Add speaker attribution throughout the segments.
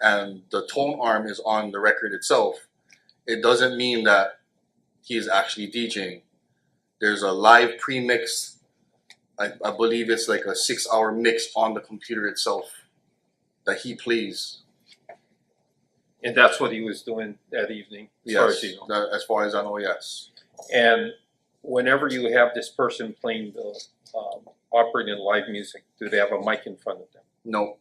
Speaker 1: and the tone arm is on the record itself, it doesn't mean that he is actually DJing. There's a live pre-mix. I, I believe it's like a six-hour mix on the computer itself that he plays.
Speaker 2: And that's what he was doing that evening, as far
Speaker 1: Yes,
Speaker 2: as you know.
Speaker 1: that- as far as I know, yes.
Speaker 2: And whenever you have this person playing the, um, operating live music, do they have a mic in front of them?
Speaker 1: Nope,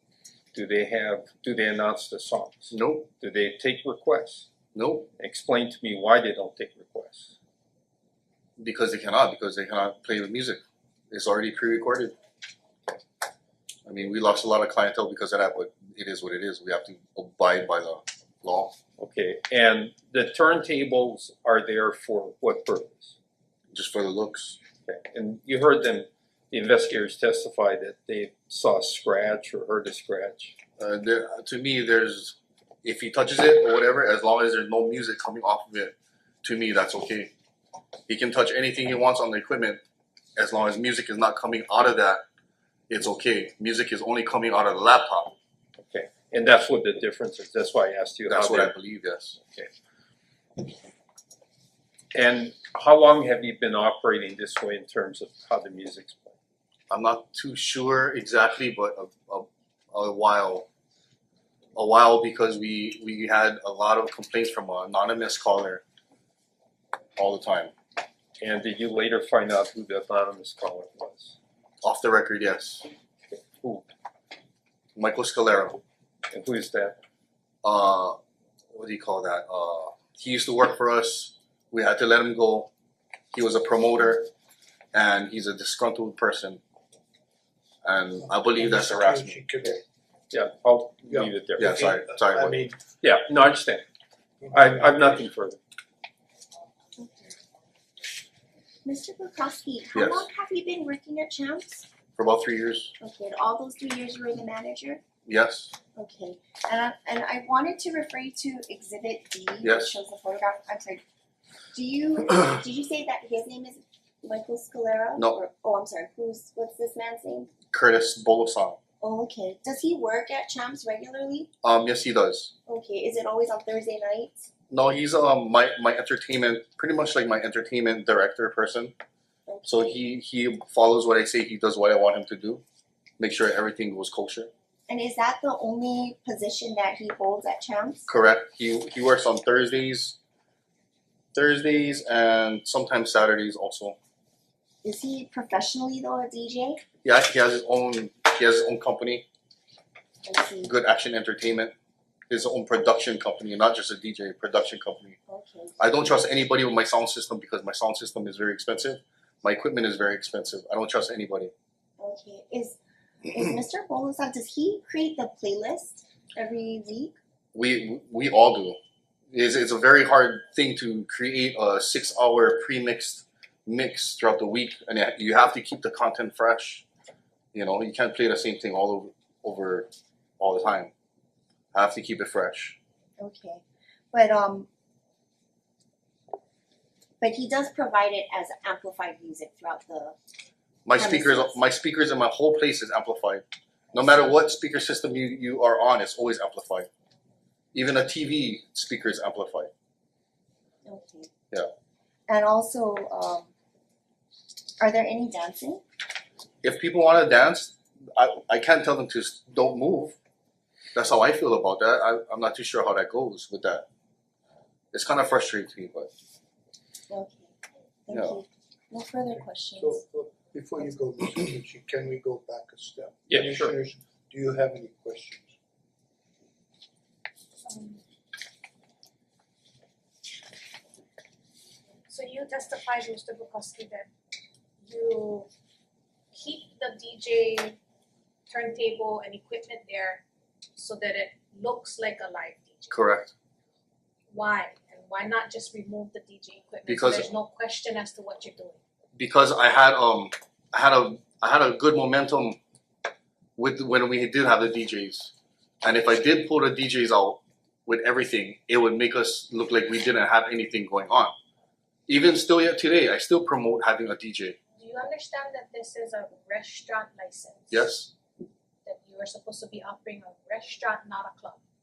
Speaker 2: Do they have, do they announce the songs?
Speaker 1: nope,
Speaker 2: Do they take requests?
Speaker 1: nope.
Speaker 2: Explain to me why they don't take requests.
Speaker 1: Because they cannot, because they cannot play with music. It's already pre-recorded. I mean, we lost a lot of clientele because of that, but it is what it is. We have to abide by the law.
Speaker 2: Okay, and the turntables are there for what purpose?
Speaker 1: just for the looks.
Speaker 2: Okay, and you heard them, the investigators testify that they saw a scratch or heard a scratch.
Speaker 1: Uh, there, to me, there's if he touches it or whatever, as long as there's no music coming off of it, to me that's okay. He can touch anything he wants on the equipment, as long as music is not coming out of that, it's okay. Music is only coming out of the laptop.
Speaker 2: Okay, and that's what the difference is, that's why I asked you how
Speaker 1: That's what I
Speaker 2: they.
Speaker 1: believe. Yes,
Speaker 2: And how long have you been operating this way in terms of how the music's played?
Speaker 1: I'm not too sure exactly, but a, a, a while, a while because we we had a lot of complaints from an anonymous caller all the time.
Speaker 2: And did you later find out who the anonymous caller was?
Speaker 1: Off the record, yes.
Speaker 2: Who,
Speaker 1: Michael Scalero.
Speaker 2: and who is that?
Speaker 1: uh what do you call that? Uh he used to work for us. We had to let him go. He was a promoter and he's a disgruntled person. And I believe that's harassment.
Speaker 2: Yeah, I'll leave it there.
Speaker 1: Yeah, sorry, sorry.
Speaker 3: I
Speaker 1: what-
Speaker 3: mean.
Speaker 2: Yeah, no, I understand, I I've nothing further.
Speaker 4: Mr. Bukowski, how
Speaker 1: Yes.
Speaker 4: long have you been working at Champs?
Speaker 1: For about three years,
Speaker 4: Okay, and all those three years you were the manager?
Speaker 1: yes.
Speaker 4: Okay, and I, and I wanted to refer you to exhibit D, which
Speaker 1: Yes.
Speaker 4: shows the photograph, I'm sorry. Do you, did you say that his name is Michael Scalera?
Speaker 1: No.
Speaker 4: Or- Oh, I'm sorry, who's, what's this man's name?
Speaker 1: Curtis Bolosan.
Speaker 4: Oh, okay, does he work at Champs regularly?
Speaker 1: Um yes he does.
Speaker 4: Okay, is it always on Thursday nights?
Speaker 1: No, he's um my my entertainment pretty much like my entertainment director person. So
Speaker 4: Okay.
Speaker 1: he he follows what I say, he does what I want him to do. Make sure everything goes kosher.
Speaker 4: And is that the only position that he holds at Champs?
Speaker 1: Correct. He he works on Thursdays, Thursdays and sometimes Saturdays also.
Speaker 4: Is he professionally though a DJ?
Speaker 1: Yeah, he has his own he has his own company,
Speaker 4: I see.
Speaker 1: Good Action Entertainment, his own production company, not just a DJ production company.
Speaker 4: Okay.
Speaker 1: I don't trust anybody with my sound system because my sound system is very expensive. My equipment is very expensive. I don't trust anybody.
Speaker 4: Okay. Is is Mr. Bolosan does he create the playlist every week?
Speaker 1: We we all do. It's, it's a very hard thing to create a six hour pre mixed mix throughout the week, and you ha- you have to keep the content fresh. You know, you can't play the same thing all over, over all the time. I have to keep it fresh.
Speaker 4: Okay. But um but he does provide it as amplified music throughout the
Speaker 1: My
Speaker 4: That makes
Speaker 1: speakers,
Speaker 4: sense.
Speaker 1: my speakers, and my whole place is amplified. No matter what speaker system you, you are on, it's always amplified. Even a TV speaker is amplified.
Speaker 4: Okay.
Speaker 1: Yeah.
Speaker 4: And also um are there any dancing?
Speaker 1: if people want to dance, I, I can't tell them to s- don't move. That's how I feel about that. I, I'm not too sure how that goes with that. It's kind of frustrating to me, but
Speaker 4: Okay. Thank
Speaker 1: No.
Speaker 4: you. No further questions.
Speaker 3: So, so before you go, Mr. Tucci, can we go back a step?
Speaker 2: Yeah, sure.
Speaker 3: Commissioners, do you have any questions?
Speaker 5: Um, So you testified, Mr. Bukowski, that you keep the DJ turntable and equipment there so that it looks like a live DJ.
Speaker 1: correct
Speaker 5: Why? And why not just remove the DJ equipment
Speaker 1: Because-
Speaker 5: so there's no question as to what you're doing?
Speaker 1: because I had um I had a I had a good momentum with when we did have the DJs, and if I did pull the DJs out with everything, it would make us look like we didn't have anything going on. Even still yet today, I still promote having a DJ.
Speaker 5: Do you understand that this is a restaurant license?
Speaker 1: Yes,
Speaker 5: That you are supposed to be offering a restaurant, not a club.